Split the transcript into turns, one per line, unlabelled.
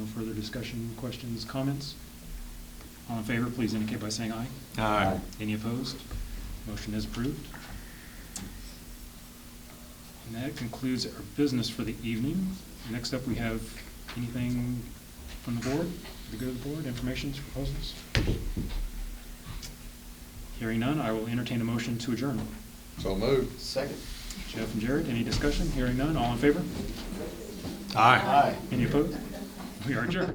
Further discussion, questions, comments? All in favor, please indicate by saying aye.
Aye.
Any opposed? Motion is approved. And that concludes our business for the evening. Next up, we have anything from the board, the good of the board, informations, proposals? Hearing none, I will entertain a motion to adjourn.
So moved.
Second.
Jeff and Jared, any discussion? Hearing none, all in favor?
Aye.
Any opposed? We are adjourned.